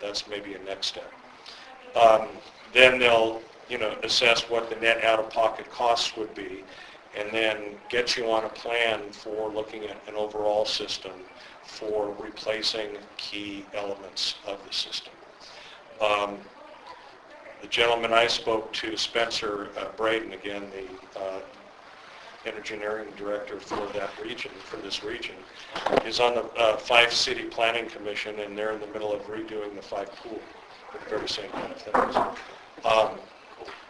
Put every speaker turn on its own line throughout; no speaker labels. that's maybe a next step. Um, Then they'll, you know, assess what the net out-of-pocket costs would be, and then get you on a plan for looking at an overall system for replacing key elements of the system. Um, The gentleman I spoke to, Spencer uh, Braden, again, the uh, engineering director for that region, for this region, is on the uh, Five City Planning Commission, and they're in the middle of redoing the Five Pool, the very same kind of things. Um,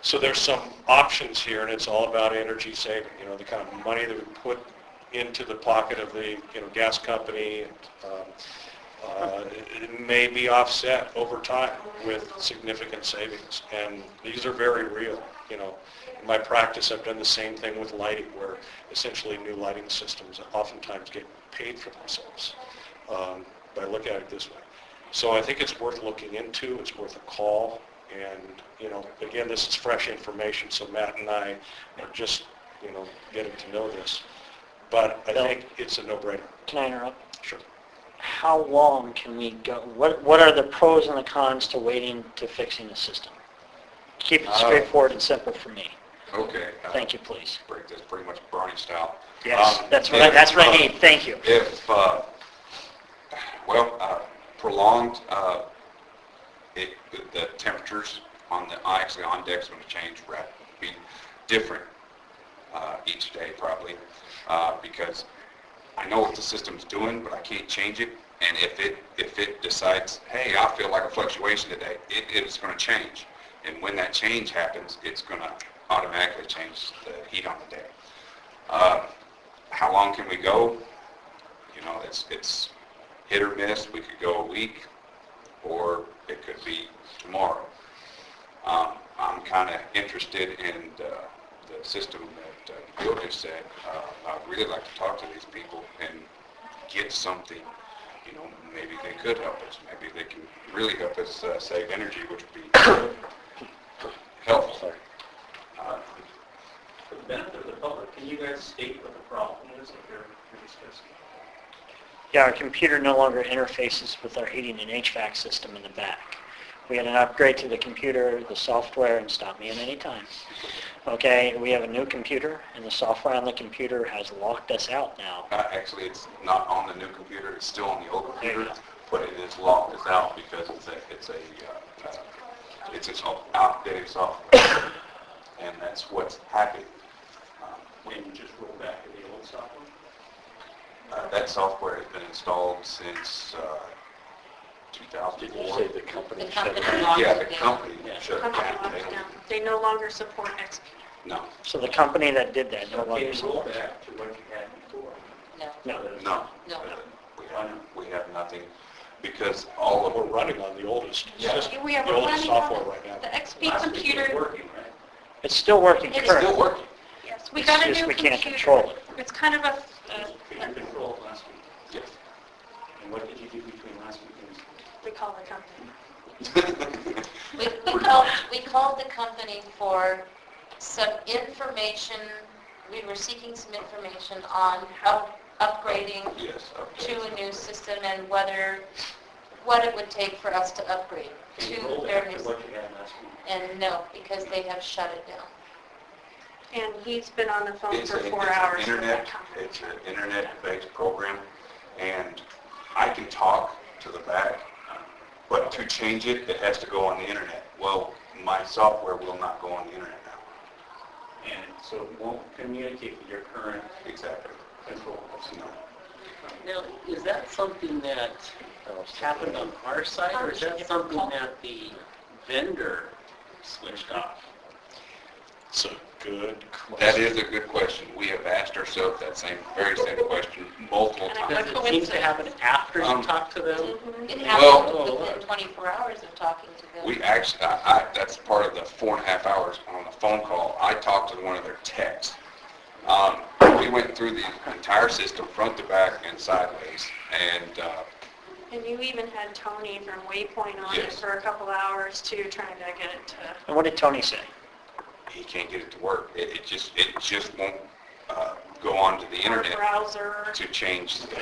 So there's some options here, and it's all about energy saving, you know, the kind of money that we put into the pocket of the, you know, gas company, and, um, uh, it- it may be offset over time with significant savings, and these are very real, you know. In my practice, I've done the same thing with lighting, where essentially new lighting systems oftentimes get paid for themselves um, by looking at it this way. So I think it's worth looking into, it's worth a call, and, you know, again, this is fresh information, so Matt and I are just, you know, getting to know this, but I
Bill?
think it's a no-brainer.
Can I interrupt?
Sure.
How long can we go, what, what are the pros and the cons to waiting to fixing the system? Keep it
Uh,
straightforward and simple for me.
Okay. uh,
Thank you, please.
Break this pretty much Bernie style.
Yes,
Um,
that's what I, that's what I
if,
need, thank you.
If, uh, well, uh, prolonged, uh, it, the temperatures on the, actually on deck's going to change rapidly, be different uh, each day probably, uh, because I know what the system's doing, but I can't change it. And if it, if it decides, hey, I feel like a fluctuation today, it, it's going to change. And when that change happens, it's going to automatically change the heat on the day. Uh, How long can we go? You know, it's, it's hit or miss. We could go a week, or it could be tomorrow. Um, I'm kind of interested in the, the system that uh, Bill just said. Uh, I'd really like to talk to these people and get something, you know, maybe they could help us. Maybe they can really help us uh, save energy, which would be helpful. Uh,
For the benefit of the public, can you guys state what the problem is that you're you're discussing?
Yeah, our computer no longer interfaces with our heating and HVAC system in the back. We had an upgrade to the computer, the software, and stop me at any time. Okay, we have a new computer, and the software on the computer has locked us out now.
Uh, Actually, it's not on the new computer, it's still on the old
There you
computer,
go.
but it is locked, it's out because it's a, it's a, uh, uh, it's its own outdated software. And that's what's happening. Um,
When you just roll back to the old software?
uh, That software has been installed since uh, 2004.
the company
The company locked
Yeah, the
it down.
company
Yeah.
shut it
Company
down.
locked
They
it down.
don't-
They no longer support XP.
No,
So the company that did that no
So can
longer
you roll
supports it.
back to what you had before?
No.
No.
no.
No.
Uh, We have, we have nothing because all of,
We're running on the oldest
Yeah.
system,
We are
the oldest
running
software
on,
right now.
the XP
Last week it was
computer,
working, right?
It's still working
It is
it's still
currently.
working.
yes, we
It's
got a new
just
computer.
we can't control it.
It's kind of a,
Could you
a-
control it last week?
Yes.
And what did you do between last week and this week?
we call the company.
We we called, we called the company for some information, we were seeking some information on up- upgrading
Yes. okay.
to a new system and whether, what it would take for us to upgrade
Can you
to
roll
their
back to
new system.
what you had last week?
And no, because they have shut it down.
And he's been on the phone
It's
for
a-
four
it's an
hours with
internet-
that company.
It's an internet-based program, and I can talk to the back, uh, but to change it, it has to go on the internet. Well, my software will not go on the internet now.
And so it won't communicate with your current
Exactly.
control.
No.
Now, is that something that uh, happened on our side, or is that something that the vendor switched off?
It's a good question.
That is a good question. We have asked ourselves that same, very same question multiple
And I-
times.
Does it seem to happen after you talk to them?
Mm-hmm.
It
Well-
happened within 24 hours of talking to them.
We actually, I, I, that's part of the four and a half hours on the phone call. I talked to one of their techs. Um, we went through the entire system, front to back and sideways, and, uh,
And you even had Tony from Waypoint on it
Yes.
for a couple hours too, trying to get it to.
And what did Tony say?
he can't get it to work. It, it just, it just won't, uh, go onto the
our
internet
Browser,
to change the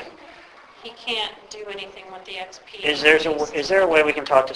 he can't do anything with the XP.
Is there's a, is there a way we can talk to